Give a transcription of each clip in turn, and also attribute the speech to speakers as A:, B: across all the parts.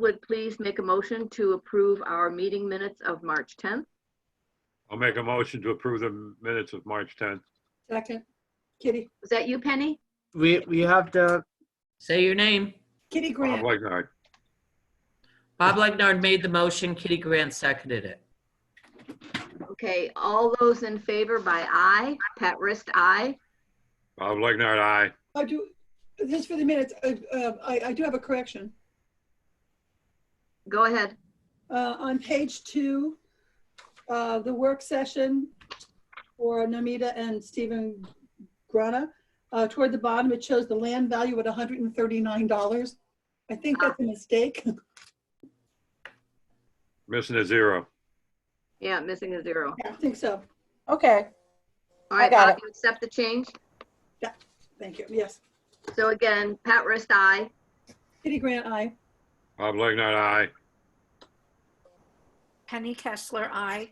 A: would please make a motion to approve our meeting minutes of March 10th.
B: I'll make a motion to approve the minutes of March 10th.
C: Second. Kitty,
A: Was that you, Penny?
D: We, we have to,
E: Say your name.
C: Kitty
B: Bob
C: Grant,
B: Legnard.
E: Bob Legnard made the motion. Kitty Grant seconded it.
A: Okay, all those in favor by aye. Pat Rist, aye.
B: Bob Legnard, aye.
C: I do, this for the minutes, uh, uh, I, I do have a correction.
A: Go ahead.
C: Uh, On page two, uh, the work session for Namita and Stephen Grana, uh, toward the bottom, it shows the land value at $139. I think that's a mistake.
B: Missing a zero.
A: Yeah, missing a zero.
C: I think so.
F: Okay,
A: All right,
F: got
A: Bob,
F: it.
A: you accept the change?
C: Thank you. Yes.
A: So again, Pat Rist, aye.
C: Kitty Grant, aye.
B: Bob Legnard, aye.
G: Penny Kessler, I.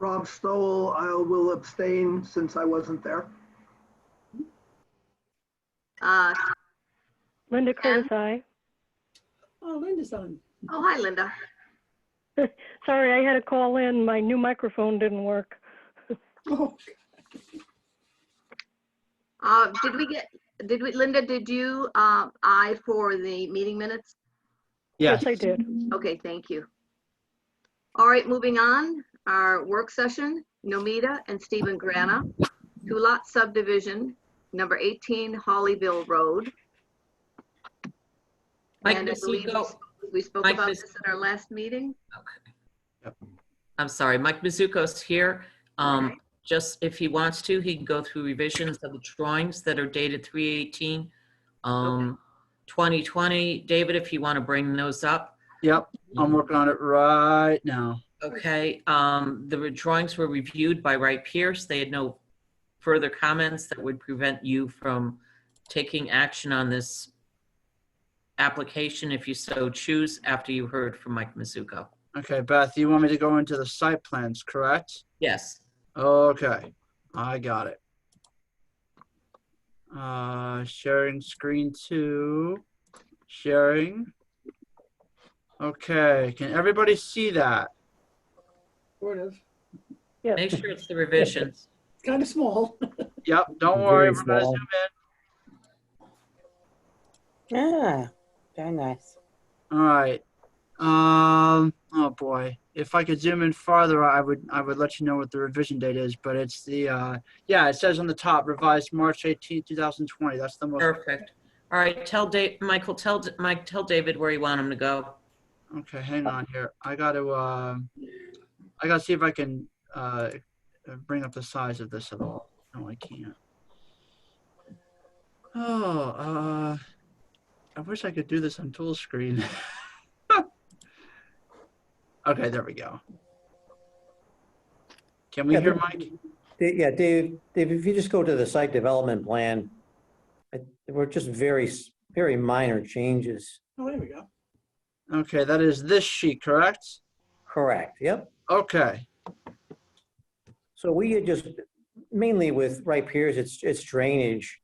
H: Rob Stoll, I will abstain since I wasn't there.
A: Uh,
I: Linda
A: Ann?
I: Curtis, aye.
C: Oh, Linda's on.
A: Oh, hi, Linda.
I: Sorry, I had to call in. My new microphone didn't work.
C: Oh,
A: Uh, Did we get, did we, Linda, did you uh, aye for the meeting minutes?
I: Yes,
D: yes,
I: I did.
A: Okay, thank you. All right, moving on, our work session, Nomita and Stephen Grana, two-lot subdivision, number 18 Hollyville Road.
E: Mike
A: And I
E: Miss
A: believe
E: Lugo,
A: We spoke
E: Mike,
A: about
E: Ms.
A: this at our last meeting.
E: I'm sorry, Mike Mizuko's here. Um, just if he wants to, he can go through revisions of the drawings that are dated 318, um, 2020. David, if you want to bring those up.
D: yep, I'm working on it right now.
E: Okay, um, the re- drawings were reviewed by Wright Pierce. They had no further comments that would prevent you from taking action on this application if you so choose after you heard from Mike Mizuko.
D: Okay, Beth, you want me to go into the site plans, correct?
E: Yes,
D: Okay, I got it. Uh, sharing screen two, sharing. Okay, can everybody see that?
C: sort of.
E: make sure it's the revisions.
C: It's kind of small.
D: Yep, don't worry, we're gonna zoom in.
F: ah, very nice.
D: All right. Um, oh boy, if I could zoom in farther, I would, I would let you know what the revision date is, but it's the, uh, yeah, it says on the top revised March 18, 2020. That's the most,
E: Perfect. All right, tell Dave, Michael, tell, D- Mike, tell David where you want him to go.
D: okay, hang
J: Uh,
D: on here. I gotta, um, I gotta see if I can, uh, bring up the size of this at all. No, I can't. Oh, uh, I wish I could do this on tool screen. okay, there we go. Can we
J: Yeah,
D: hear
J: but-
D: Mike?
J: Da- Yeah, Dave, Dave, if you just go to the site development plan, I- there were just very, s- very minor changes.
C: Oh, there we go.
D: Okay, that is this sheet, correct?
J: Correct, yep.
D: Okay,
J: So we had just, mainly with Wright Piers, it's, it's drainage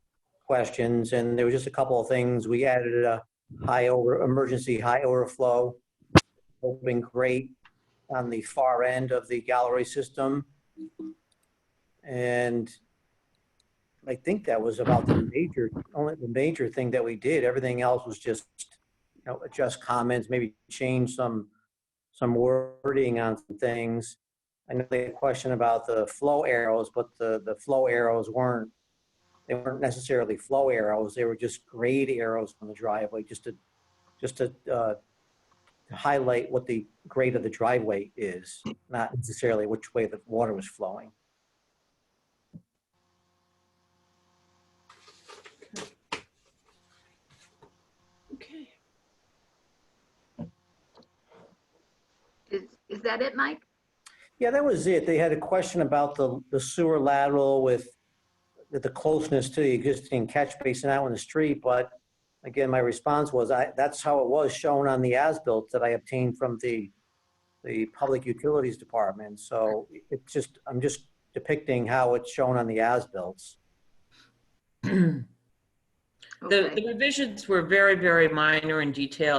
J: questions, and there was just a couple of things. We added a high over, emergency high overflow, open grate on the far end of the gallery system. And I think that was about the major, only the major thing that we did. Everything else was just, you know, adjust comments, maybe change some, some wording on some things. I know they had a question about the flow arrows, but the, the flow arrows weren't, they weren't necessarily flow arrows. They were just grade arrows on the driveway, just to, just to uh, highlight what the grade of the driveway is, not necessarily which way the water was flowing.
C: Okay.
A: Is, is that it, Mike?
J: Yeah, that was it. They had a question about the, the sewer lateral with, with the closeness to the existing catch basin out on the street, but again, my response was, I, that's how it was shown on the as-built that I obtained from the, the Public Utilities Department, so it's just, I'm just depicting how it's shown on the as-bills.
E: The
A: Okay.
E: the revisions were very, very minor in detail,